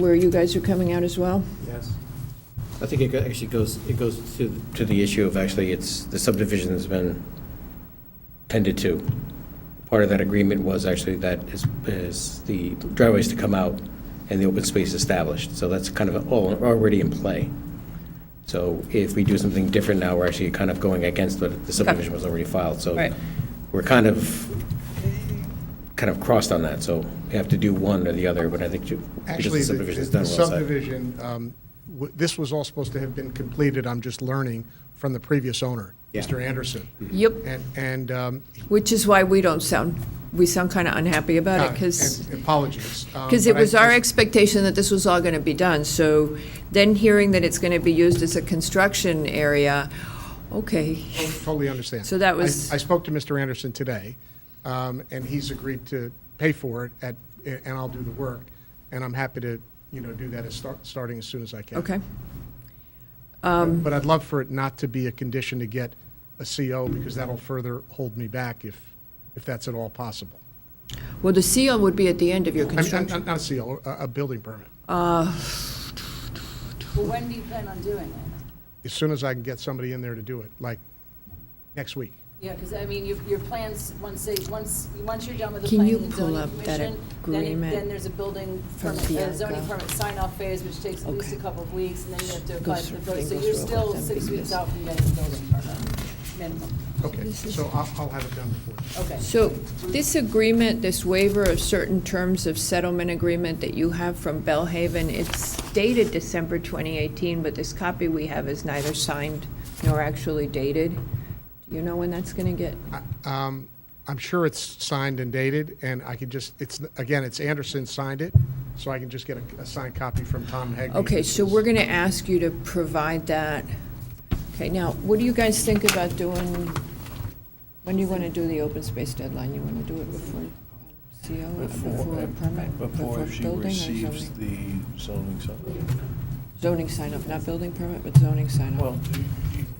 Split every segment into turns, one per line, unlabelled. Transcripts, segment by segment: where you guys are coming out as well?
Yes.
I think it go- actually goes, it goes to, to the issue of actually, it's, the subdivision has been tended to. Part of that agreement was actually that is, is the driveways to come out and the open space established. So that's kind of all already in play. So if we do something different now, we're actually kind of going against what the subdivision was already filed. So
Right.
we're kind of, kind of crossed on that, so we have to do one or the other, but I think you, because
Actually,
the
the
subdivision is
the
done, we're all set.
subdivision, um, w- this was all supposed to have been completed, I'm just learning, from the previous owner,
Yeah. Mm-hmm.
Mr. Anderson.
Yep.
And, and, um,
Which is why we don't sound, we sound kind of unhappy about it, because,
uh, and apologies. um,
it
but I
was our
just-
expectation that this was all going to be done. So then hearing that it's going to be used as a construction area, okay.
Totally understand.
So that
I-
was-
I spoke to Mr. Anderson today, um, and he's agreed to pay for it at, and I'll do the work. And I'm happy to, you know, do that as, start- starting as soon as I can.
Okay, Um,
But I'd love for it not to be a condition to get a CO, because that'll further hold me back if, if that's at all possible.
well, the seal would be at the end of your
I mean, Not
construction.
not- not a CO, a, a building permit.
Well, when do you plan on doing it?
As soon as I can get somebody in there to do it, like next week.
Yeah, because I mean, your, your plans, once they, once, once you're done with the
Can
planning
you
and
pull
zoning
up that
commission, then, it-
agreement
then there's a building
from
permit, a
Bianca?
zoning permit sign-off phase, which takes at least a
Okay.
couple of weeks, and then you have to
Go
apply for
through-
the building.
then
So
go
you're
through all
still
of them
six
because-
weeks out from getting the building permit, minimum.
Okay, so I'll, I'll have it done before. then.
Okay.
So this agreement, this waiver of certain terms of settlement agreement that you have from Bellhaven, it's dated December 2018, but this copy we have is neither signed nor actually dated. Do you know when that's going to get?
Um, I'm sure it's signed and dated, and I could just, it's, again, it's Anderson signed it, so I can just get a, a signed copy from Tom Hegney.
Okay, so we're going to ask you to provide that. Okay, now, what do you guys think about doing, when do you want to do the open space deadline? You want to do it before CO, before a permit?
Before she
building or
receives
zoning?
the zoning supplement.
Zoning sign-up, not building permit, but zoning sign-up.
Well,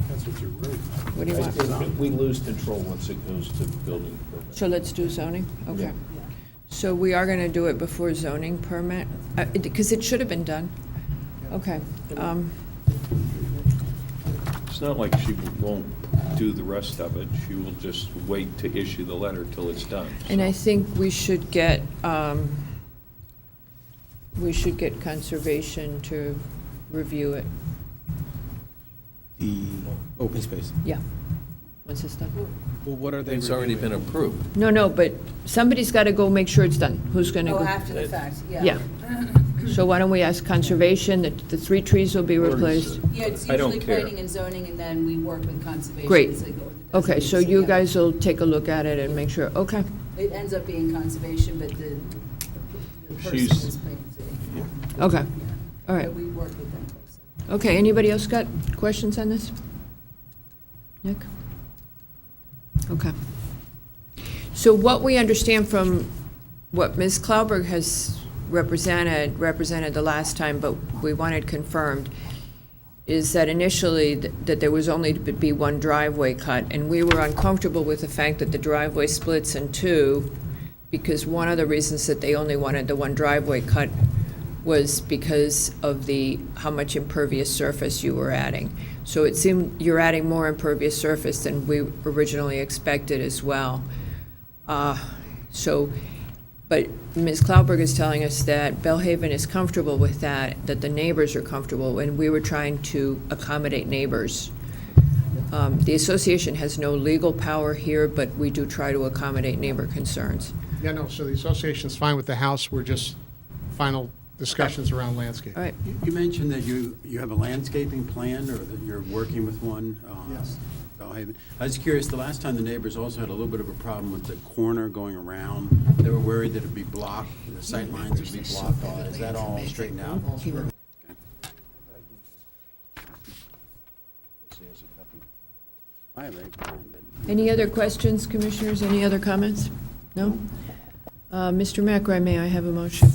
That's what you wrote.
What do you want?
we lose control once it goes to building permit.
So let's do zoning, okay.
Yeah.
So we are gonna do it before zoning permit, because it should have been done. Okay, um,
It's not like she won't do the rest of it. She will just wait to issue the letter till it's done.
and I think we should get, um, we should get conservation to review it,
The open space.
yeah, once it's done.
Oh, Well, what are they
It's already been approved.
No, no, but somebody's gotta go make sure it's done, who's gonna go?
Oh, after the fact, yeah.
Yeah. So why don't we ask conservation, that the three trees will be replaced?
Yeah, it's
I don't
usually
care.
planning and zoning, and then we work with conservation.
Great.
as they go with the
Okay, so
designations,
you
yeah.
guys will take a look at it and make sure, okay.
It ends up being conservation, but the, the person
She's-
is planning and zoning.
Okay,
Yeah.
all right.
But we work with them closely.
Okay, anybody else got questions on this? Nick? Okay. So what we understand from what Ms. Klauberg has represented, represented the last time, but we wanted confirmed, is that initially th- that there was only to be one driveway cut, and we were uncomfortable with the fact that the driveway splits in two, because one of the reasons that they only wanted the one driveway cut was because of the, how much impervious surface you were adding. So it seemed you're adding more impervious surface than we originally expected as well. Uh, So, but Ms. Klauberg is telling us that Bellhaven is comfortable with that, that the neighbors are comfortable, and we were trying to accommodate neighbors. Um, The association has no legal power here, but we do try to accommodate neighbor concerns.
Yeah, no, so the association's fine with the house, we're just final discussions around landscape.
All right,
You you mentioned that you, you have a landscaping plan or that you're working with one. uh,
Yes.
Bellhaven. I was curious, the last time the neighbors also had a little bit of a problem with the corner going around. They were worried that it'd be blocked, the sight lines would be blocked. Uh, Is that all straightened out? I have a plan, but-
any other questions, commissioners, any other comments? No? Uh, Mr. McRae, may I have a motion?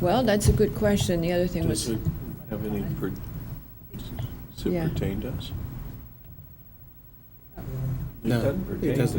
Well, that's a good question, the other thing was,
Does it have any, per- does it
Yeah.
pertain to us?
No,
doesn't
it
pertain
doesn't.